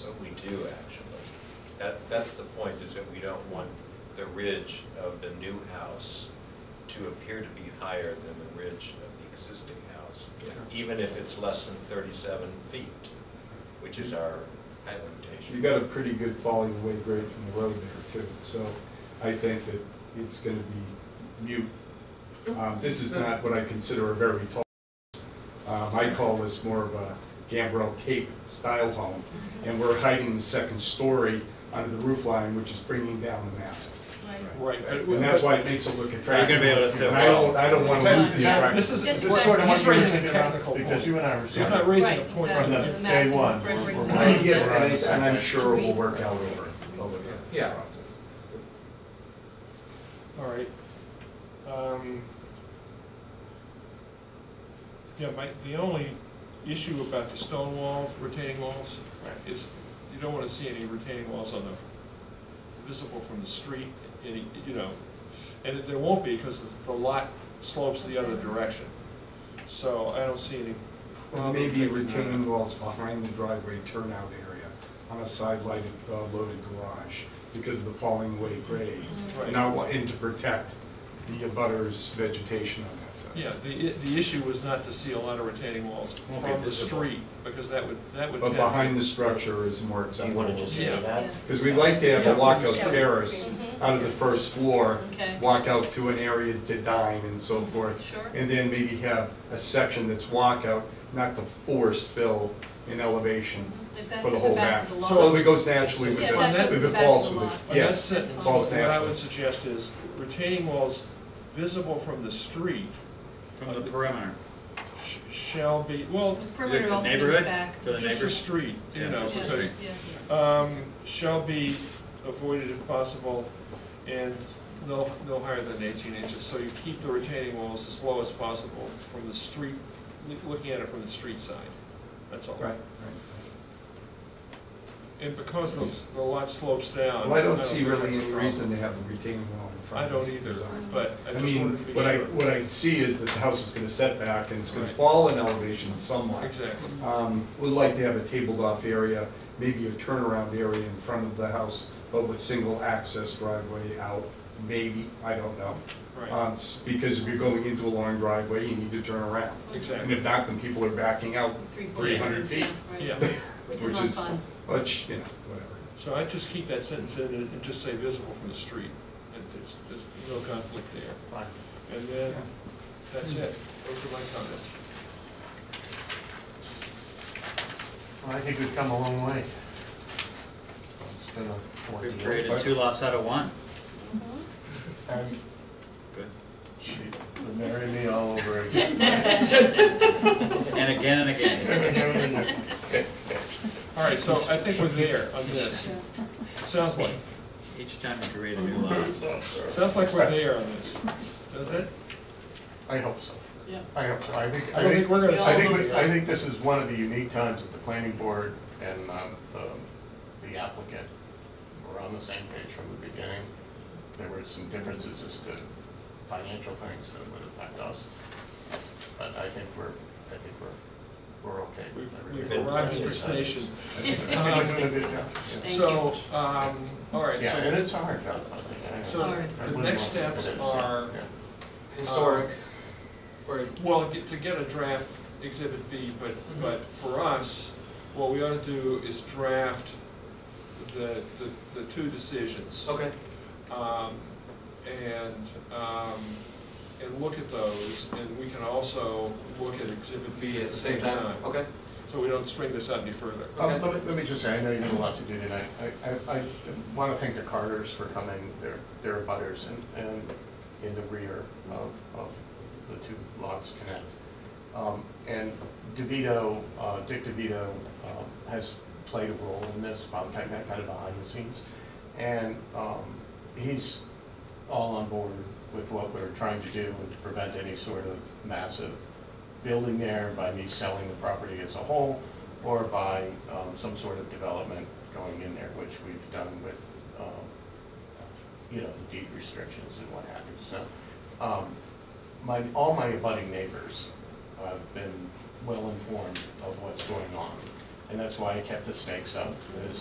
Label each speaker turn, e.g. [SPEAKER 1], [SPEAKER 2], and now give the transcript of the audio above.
[SPEAKER 1] that we do actually. That, that's the point, is that we don't want the ridge of the new house to appear to be higher than the ridge of the existing house,
[SPEAKER 2] Yeah.
[SPEAKER 1] even if it's less than thirty-seven feet, which is our height limitation.
[SPEAKER 2] You got a pretty good falling away grade from the road there too, so I think that it's gonna be mute. Um, this is not what I consider a very tall, um, I call this more of a gambrel cape style home. And we're hiding the second story under the roof line, which is bringing down the mass.
[SPEAKER 3] Right.
[SPEAKER 2] And that's why it makes it look attractive.
[SPEAKER 4] You're gonna be able to-
[SPEAKER 2] And I don't, I don't wanna lose the
[SPEAKER 5] Exactly.
[SPEAKER 2] attraction.
[SPEAKER 3] This is,
[SPEAKER 5] That's
[SPEAKER 3] this
[SPEAKER 5] right.
[SPEAKER 3] sort of, he's
[SPEAKER 5] He's
[SPEAKER 3] raising a technical
[SPEAKER 6] Because you
[SPEAKER 3] point.
[SPEAKER 6] and I were.
[SPEAKER 3] He's not raising a
[SPEAKER 5] Right,
[SPEAKER 3] point
[SPEAKER 5] exactly.
[SPEAKER 3] on
[SPEAKER 6] that
[SPEAKER 3] that.
[SPEAKER 5] The
[SPEAKER 6] day
[SPEAKER 5] massive
[SPEAKER 6] one,
[SPEAKER 5] brick
[SPEAKER 6] we're-
[SPEAKER 5] bricks
[SPEAKER 6] we're-
[SPEAKER 5] and
[SPEAKER 2] Yeah, and I- and I'm
[SPEAKER 5] concrete.
[SPEAKER 2] sure it will work out over, over the
[SPEAKER 3] Yeah.
[SPEAKER 2] process.
[SPEAKER 3] All right. Um, Yeah, my, the only issue about the stone walls, retaining walls, is you don't wanna see any retaining walls on the, visible from the street, any, you know, and there won't be, because it's- the lot slopes the other direction. So I don't see any.
[SPEAKER 2] Well, maybe retaining walls behind the driveway turnout area on a side lighted, uh, loaded garage because of the falling away grade. And I want, and to protect the abutters vegetation on that side.
[SPEAKER 3] Yeah, the, i- the issue was not to see a lot of retaining walls
[SPEAKER 4] Won't be
[SPEAKER 3] from the
[SPEAKER 4] visible.
[SPEAKER 3] street, because that would, that would
[SPEAKER 2] But
[SPEAKER 3] tend to.
[SPEAKER 2] behind the structure is more acceptable.
[SPEAKER 4] wanna just
[SPEAKER 3] say Yeah.
[SPEAKER 4] that?
[SPEAKER 2] Because we like to have a walkout
[SPEAKER 5] Yeah.
[SPEAKER 2] terrace out of the first floor,
[SPEAKER 5] Okay.
[SPEAKER 2] walk out to an area to dine and so forth.
[SPEAKER 5] Sure.
[SPEAKER 2] And then maybe have a section that's walkout, not to force fill in elevation
[SPEAKER 5] If that's
[SPEAKER 2] for the
[SPEAKER 5] at the
[SPEAKER 2] whole
[SPEAKER 5] back
[SPEAKER 2] back.
[SPEAKER 5] of the lot.
[SPEAKER 2] So it goes naturally with
[SPEAKER 5] Yeah,
[SPEAKER 3] the-
[SPEAKER 5] that
[SPEAKER 3] if
[SPEAKER 2] the,
[SPEAKER 5] goes
[SPEAKER 2] if
[SPEAKER 5] to
[SPEAKER 2] it
[SPEAKER 5] the back
[SPEAKER 2] falls
[SPEAKER 5] of the
[SPEAKER 2] with,
[SPEAKER 5] lot.
[SPEAKER 3] On that
[SPEAKER 2] yes.
[SPEAKER 3] sentence,
[SPEAKER 2] falls
[SPEAKER 3] what I
[SPEAKER 2] naturally.
[SPEAKER 3] would suggest is retaining walls visible from the street
[SPEAKER 4] From the perimeter.
[SPEAKER 3] sh- shall be, well,
[SPEAKER 5] The perimeter also means
[SPEAKER 4] Neighborhood?
[SPEAKER 5] back.
[SPEAKER 4] For the
[SPEAKER 3] just the
[SPEAKER 4] neighbors.
[SPEAKER 3] street, you
[SPEAKER 4] Yeah,
[SPEAKER 3] know,
[SPEAKER 4] just the
[SPEAKER 3] because,
[SPEAKER 4] street.
[SPEAKER 5] Yeah,
[SPEAKER 3] um, shall be avoided if possible, and no, no higher than eighteen inches, so you keep the retaining walls as low as possible from the street, loo- looking at it from the street side, that's all.
[SPEAKER 2] Right, right.
[SPEAKER 3] And because the, the lot slopes down.
[SPEAKER 2] Well, I don't see
[SPEAKER 3] think
[SPEAKER 2] really
[SPEAKER 3] Um, that's a
[SPEAKER 2] any
[SPEAKER 3] problem.
[SPEAKER 2] reason to have a retaining wall in front
[SPEAKER 3] I
[SPEAKER 2] of
[SPEAKER 3] don't
[SPEAKER 2] this
[SPEAKER 3] either,
[SPEAKER 2] design.
[SPEAKER 3] but I
[SPEAKER 2] I
[SPEAKER 3] just
[SPEAKER 2] mean,
[SPEAKER 3] wanted to be
[SPEAKER 2] what I,
[SPEAKER 3] sure.
[SPEAKER 2] what I see is that the house is gonna set back and it's gonna
[SPEAKER 3] Right.
[SPEAKER 2] fall in elevation somewhat.
[SPEAKER 3] Exactly.
[SPEAKER 2] Um, Would like to have a tabled off area, maybe a turnaround area in front of the house, but with single access driveway out, maybe, I don't know.
[SPEAKER 3] Right,
[SPEAKER 2] Um, s- Because if you're going into a long driveway, you need to turn around. And
[SPEAKER 3] exactly.
[SPEAKER 2] if not, then people are backing out,
[SPEAKER 5] Three feet.
[SPEAKER 2] 300 feet.
[SPEAKER 5] Yeah, right.
[SPEAKER 3] Yeah,
[SPEAKER 5] Which
[SPEAKER 2] Which
[SPEAKER 5] is
[SPEAKER 2] is-
[SPEAKER 5] not fun.
[SPEAKER 2] which, you know, whatever.
[SPEAKER 3] so I just keep that sentence in and and just say visible from the street. And There's, there's no conflict there.
[SPEAKER 4] Fine.
[SPEAKER 3] And then, that's it. Those are my comments.
[SPEAKER 6] Well, I think we've come a long way. It's been a
[SPEAKER 4] We've
[SPEAKER 6] ordeal.
[SPEAKER 4] created two lots out of one.
[SPEAKER 6] And
[SPEAKER 4] Good.
[SPEAKER 6] She would marry me all over again.
[SPEAKER 4] And again and again.
[SPEAKER 3] All right, so I think we're there on this. Sounds like,
[SPEAKER 4] Each time we create a new lot.
[SPEAKER 3] sounds like we're there on this, doesn't it?
[SPEAKER 6] I hope so.
[SPEAKER 5] Yeah.
[SPEAKER 6] I hope so. I think,
[SPEAKER 3] I
[SPEAKER 6] I
[SPEAKER 3] don't
[SPEAKER 6] think,
[SPEAKER 3] think we're gonna
[SPEAKER 6] I
[SPEAKER 3] solve
[SPEAKER 6] think,
[SPEAKER 3] this.
[SPEAKER 6] we- I think this is one of the unique times that the planning board and um, the the applicant were on the same page from the beginning. There were some differences as to financial things that would affect us. But I think we're, I think we're, we're okay
[SPEAKER 3] We've,
[SPEAKER 6] with
[SPEAKER 3] we've
[SPEAKER 6] everything.
[SPEAKER 3] arrived at the station.
[SPEAKER 6] I think we're doing a good job.
[SPEAKER 5] Thank
[SPEAKER 3] So, um, all right,
[SPEAKER 6] Yeah, and
[SPEAKER 3] so
[SPEAKER 6] it's a hard job. I think. I-
[SPEAKER 3] So
[SPEAKER 6] I
[SPEAKER 5] the
[SPEAKER 3] next
[SPEAKER 6] wouldn't want to
[SPEAKER 3] steps
[SPEAKER 6] put it-
[SPEAKER 3] are-
[SPEAKER 6] yeah.
[SPEAKER 3] Historic, Um,
[SPEAKER 7] or
[SPEAKER 3] Well, get- to get a draft exhibit B, but, but for us, what we ought to do is draft the, the, the two decisions.
[SPEAKER 7] okay.
[SPEAKER 3] Um, and, um, and look at those, and we can also look at exhibit B at the same time.
[SPEAKER 7] Okay.
[SPEAKER 3] So we don't string this out any further.
[SPEAKER 6] Oh, let me, let me just say, I know you have a lot to do tonight. I, I, I want to thank the Carters for coming, their, their butters and, and in the rear of, of the two lots connect. Um, and DeVito, uh, Dick DeVito, um, has played a role in this, by kind of, kind of behind the scenes. And, um, he's all on board with what we're trying to do and to prevent any sort of massive building there by me selling the property as a whole or by um, some sort of development going in there, which we've done with, um, you know, the deed restrictions and what have you. So um, my, all my abutting neighbors have been well informed of what's going on. And that's why I kept the stakes up, is